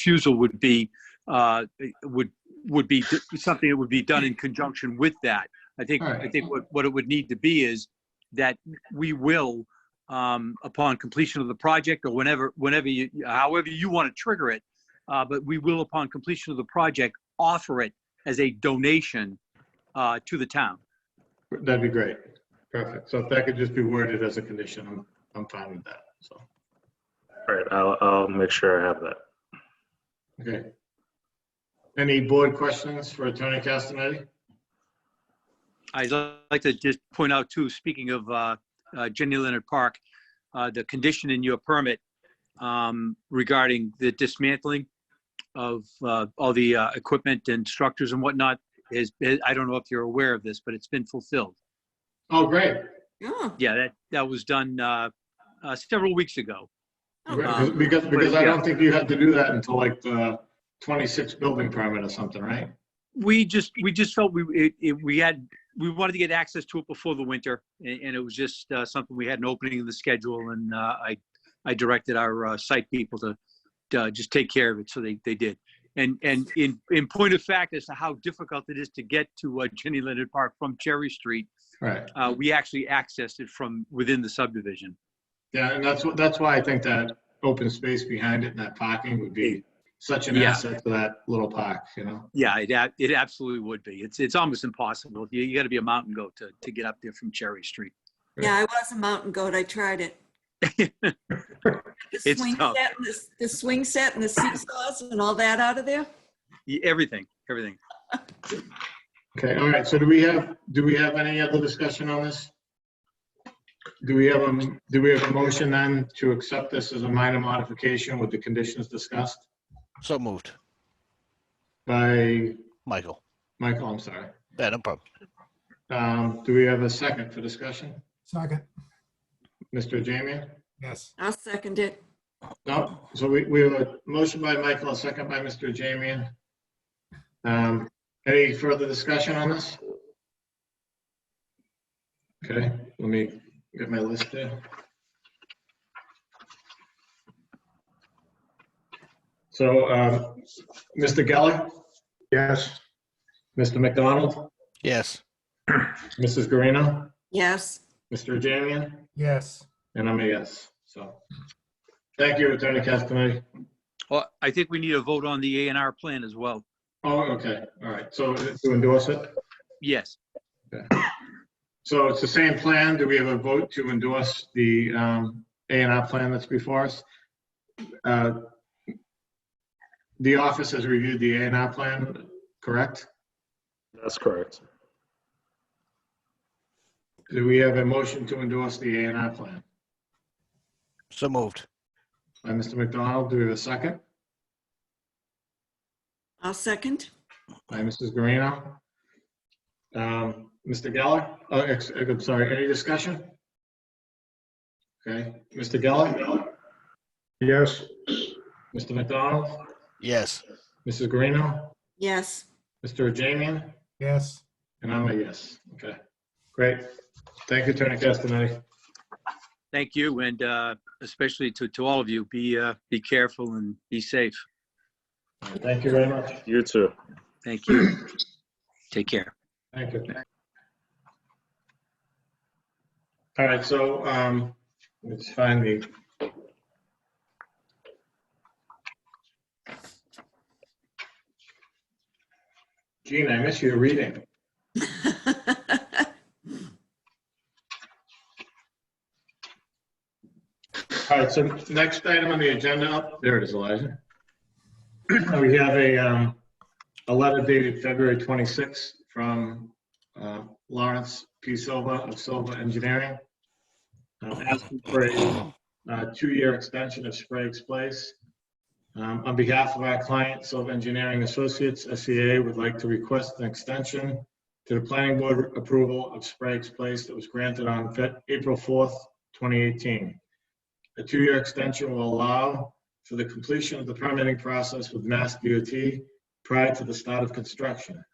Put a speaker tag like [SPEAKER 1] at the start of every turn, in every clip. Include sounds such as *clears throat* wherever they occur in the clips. [SPEAKER 1] refusal would be, uh, would, would be something that would be done in conjunction with that. I think,
[SPEAKER 2] All right.
[SPEAKER 1] I think what, what it would need to be is that we will, um, upon completion of the project or whenever, whenever you, however you want to trigger it, uh, but we will upon completion of the project, offer it as a donation, uh, to the town.
[SPEAKER 2] That'd be great. Perfect. So if that could just be worded as a condition, I'm, I'm fine with that. So,
[SPEAKER 3] All right, I'll, I'll make sure I have that.
[SPEAKER 2] okay. Any board questions for Attorney Castaneda?
[SPEAKER 1] I'd li- like to just point out too, speaking of uh, uh, Jenny Leonard Park, uh, the condition in your permit um, regarding the dismantling of uh, all the uh, equipment and structures and whatnot is, is- I don't know if you're aware of this, but it's been fulfilled.
[SPEAKER 2] Oh, great.
[SPEAKER 4] Oh,
[SPEAKER 1] Yeah, that, that was done uh, uh, several weeks ago.
[SPEAKER 2] Great.
[SPEAKER 4] oh,
[SPEAKER 1] Right.
[SPEAKER 2] Because- Because, because I
[SPEAKER 1] yeah.
[SPEAKER 2] don't think you had to do that until like the 26 building permit or something, right?
[SPEAKER 1] We just, we just felt we, it- it, we had, we wanted to get access to it before the winter, and, and it was just uh, something, we had an opening in the schedule, and uh, I, I directed our uh, site people to, uh, just take care of it, so they, they did. And, and in, in point of fact as to how difficult it is to get to uh, Jenny Leonard Park from Cherry Street,
[SPEAKER 2] Right.
[SPEAKER 1] uh, we actually accessed it from within the subdivision.
[SPEAKER 2] Yeah, and that's, what- that's why I think that open space behind it and that parking would be such an
[SPEAKER 1] Yeah.
[SPEAKER 2] asset to that little park, you know?
[SPEAKER 1] Yeah, it, ab- it absolutely would be. It's, it's almost impossible. You, you gotta be a mountain goat to, to get up there from Cherry Street.
[SPEAKER 4] yeah, I was a mountain goat. I
[SPEAKER 1] *laughs*
[SPEAKER 4] tried it. The
[SPEAKER 1] It's
[SPEAKER 4] swing
[SPEAKER 1] tough.
[SPEAKER 4] set and the- The swing set and the seesaws and all that out of there?
[SPEAKER 1] Y- Everything, everything.
[SPEAKER 2] Okay, all right, so do we have, do we have any other discussion on this? Do we have, a do we have a motion then to accept this as a minor modification with the conditions discussed
[SPEAKER 5] So moved.
[SPEAKER 2] by
[SPEAKER 5] Michael.
[SPEAKER 2] Michael, I'm sorry.
[SPEAKER 5] Yeah, no problem.
[SPEAKER 2] Um, Do we have a second for discussion?
[SPEAKER 6] Second,
[SPEAKER 2] Mr. Jamian?
[SPEAKER 6] yes.
[SPEAKER 4] I'll second it.
[SPEAKER 2] No, Oh, so we, we have a motion by Michael, a second by Mr. Jamian. Um, Any further discussion on this? Okay, let me get my list there. So, um, Mr. Geller? Yes. Mr. McDonald?
[SPEAKER 5] Yes.
[SPEAKER 2] Mrs. Garino?
[SPEAKER 4] Yes.
[SPEAKER 2] Mr. Jamian?
[SPEAKER 6] Yes,
[SPEAKER 2] And I'm a yes, so. Thank you, Attorney Castaneda.
[SPEAKER 1] Well, I think we need a vote on the A and R plan as well.
[SPEAKER 2] Oh, okay, all right, so to endorse it,
[SPEAKER 1] Yes,
[SPEAKER 2] so it's the same plan, do we have a vote to endorse the um, A and R plan that's before us? Uh, The office has reviewed the A and R plan, correct?
[SPEAKER 3] That's correct.
[SPEAKER 2] Do we have a motion to endorse the A and R plan?
[SPEAKER 5] So moved.
[SPEAKER 2] By Mr. McDonald, do we have a second?
[SPEAKER 4] I'll second.
[SPEAKER 2] By Mrs. Guarino? Um, Mr. Geller, oh, ex- I'm sorry, any discussion? Okay, Mr. Geller? Yes. Mr. McDonald?
[SPEAKER 5] Yes.
[SPEAKER 2] Mrs. Guarino?
[SPEAKER 4] Yes. *laughs*
[SPEAKER 2] Mr. Jamian?
[SPEAKER 6] yes.
[SPEAKER 2] And I'm a yes. Okay, great. Thank you, Attorney Castaneda.
[SPEAKER 1] thank you, and uh, especially to, to all of you, be, uh, be careful and be safe.
[SPEAKER 2] Thank you very much.
[SPEAKER 3] You too.
[SPEAKER 1] Thank you. Take care.
[SPEAKER 2] Thank you. All right, so um, let's find the. Gene, I miss your reading. All right, so next item on the agenda, oh, there it is, Elijah. *clears throat* We have a, um, a letter dated February 26th from uh, Lawrence P. Silva of Silva Engineering. um, Asking for a uh, two-year extension of Sprague's Place. Um, On behalf of our client, Silva Engineering Associates, SEA, would like to request an extension to the planning board approval of Sprague's Place that was granted on Fe- April 4th, 2018. A two-year extension will allow for the completion of the permitting process with Mass DOT prior to the start of construction.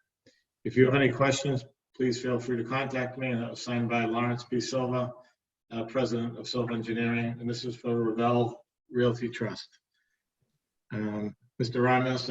[SPEAKER 2] If you have any questions, please feel free to contact me. And that was signed by Lawrence P. Silva, uh, President of Silva Engineering, and this is for Revell Realty Trust. Um, Mr. Ramos,